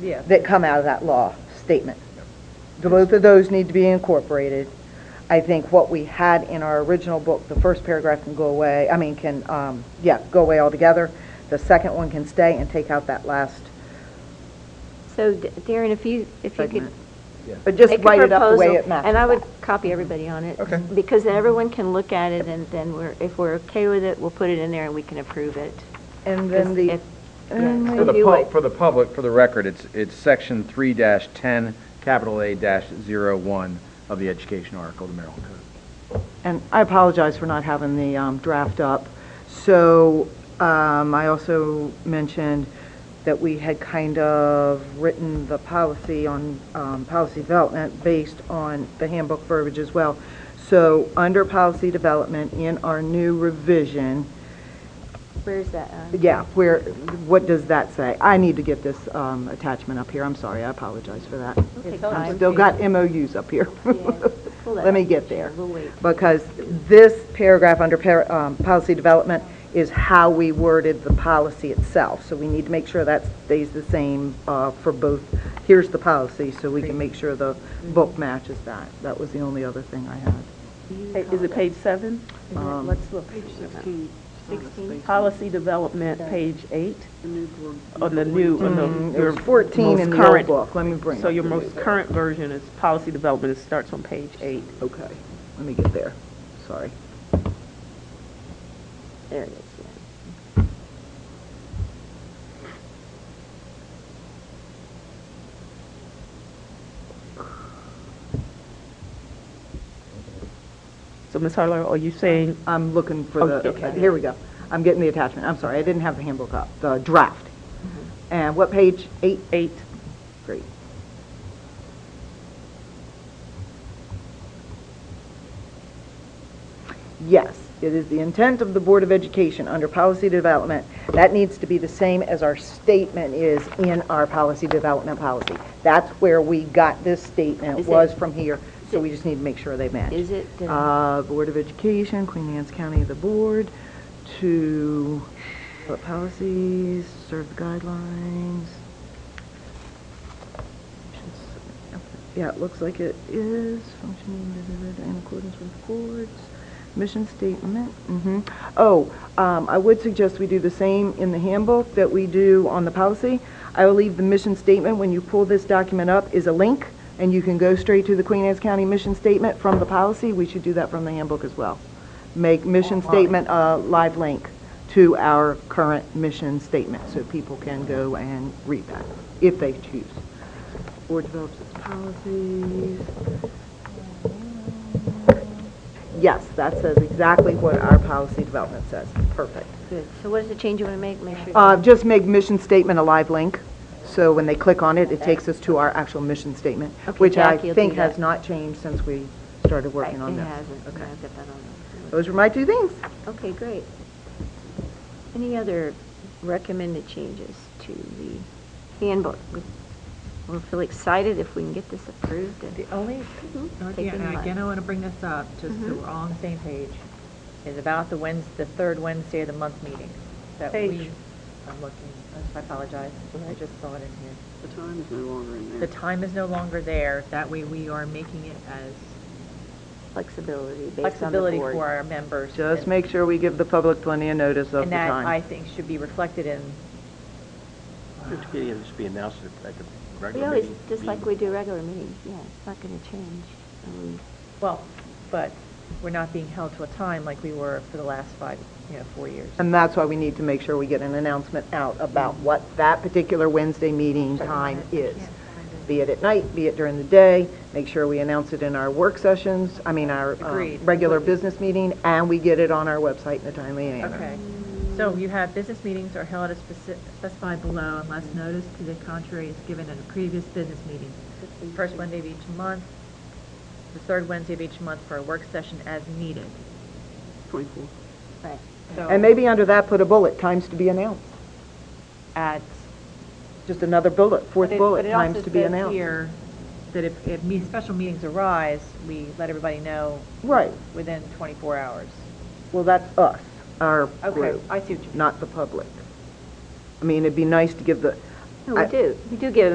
Yeah. that come out of that law statement. The Both of those need to be incorporated. I think what we had in our original book, the first paragraph can go away, I mean, can, um, yeah, go away altogether. The second one can stay and take out that last, So D- Darren, if you, if you could. Segment. but just make a write it up the way it proposal, And I matches. would copy everybody on it. Okay. Because then everyone can look at it and then we're, if we're okay with it, we'll put it in there and we can approve it. And then If- the, yeah. and For the Do pub, it. for the public, for the record, it's, it's section three dash ten, capital A dash zero one of the education article, of the Maryland Code. and I apologize for not having the um, draft up. So um, I also mentioned that we had kind of written the policy on um, policy development based on the handbook verbiage as well. So under policy development in our new revision, Where's that? uh, on? yeah, where, what does that say? I need to get this um, attachment up here. I'm sorry, I apologize for that. Take I've time. still got MOUs up here. Yeah. Pull that Let me up. get there. We'll wait. Because this paragraph under par- um, policy development is how we worded the policy itself. So we need to make sure that stays the same uh, for both, here's the policy, so we can make sure the book matches that. That was the only other thing I had. Is it page seven? Um, Let's look. Page sixteen. Policy development, page eight? On the new, on the. It your was 14 most Mm-hmm. in the old current- book, let me bring it. So your most current version is policy development, it starts on page eight. Okay, let me get there, sorry. There it is. yeah. So Ms. Harlow, are you saying, I'm looking for the, Okay. okay, here we go. I'm getting the attachment, I'm sorry, I didn't have the handbook up, the draft. And what page? Eight? eight, Great. Yes, it is the intent of the Board of Education under policy development. That needs to be the same as our statement is in our policy development policy. That's where we got this statement, Is it- was from here, so we just need to make sure they match. Is it, uh, Uh, Board of Education, Queen Anne's County, the board, to develop policies, serve the guidelines. Yeah, it looks like it is functioning in accordance with the board's mission statement. hmm Oh, um, I would suggest we do the same in the handbook that we do on the policy. I will leave the mission statement, when you pull this document up, is a link, and you can go straight to the Queen Anne's County mission statement from the policy. We should do that from the handbook as well. Make mission statement a live link to our current mission statement, so people can go and read that, if they choose. Board develops its policies. Yes, that says exactly what our policy development says. Perfect. good. So what is the change you want to make? Make sure. Uh, Just make mission statement a live link, so when they click on it, it takes us to our actual mission statement, Okay, which I Jackie will do think has that. not changed since we started working on It this. hasn't. Okay. Okay. I've got that on there. Those were my two things. Okay, great. Any other recommended changes to the handbook? We- We'll feel excited if we can get this approved and The only, uh, Take it in again, again, I mind. want to bring this up, just Mm-hmm. so we're all on the same page, is about the Wednes, the third Wednesday of the month meeting. that we- Page. I'm looking, I apologize, I just saw it in here. The time is no longer in The there. time is no longer there, that way we are making it as flexibility based on the flexibility board. for our members. Just and- make sure we give the public plenty of notice of the And that, I time. think, should be reflected in, It should be, it should be announced at like a We regular always, meeting. just like we do regular meetings, yeah, it's not going to change. Um, well, but we're not being held to a time like we were for the last five, you know, four years. And that's why we need to make sure we get an announcement out about what that particular Wednesday meeting time is. Be it at night, be it during the day, make sure we announce it in our work sessions, I mean, our um, Agreed. regular business meeting, and we get it on our website in a timely manner. Okay, so you have business meetings are held as speci- specified below unless notice to the contrary is given at a previous business meeting. First Wednesday of each month, the third Wednesday of each month for a work session as needed. Twenty-four. Right. So And maybe under that, put a bullet, times to be announced, At. just another bullet, fourth But it- bullet, but it times also to be says announced. here That if, if me- special meetings arise, we let everybody know. Right. Within 24 hours. Well, that's us, our Okay, group, I see what you mean. not the public. I mean, it'd be nice to give the, No, I- we do, we do give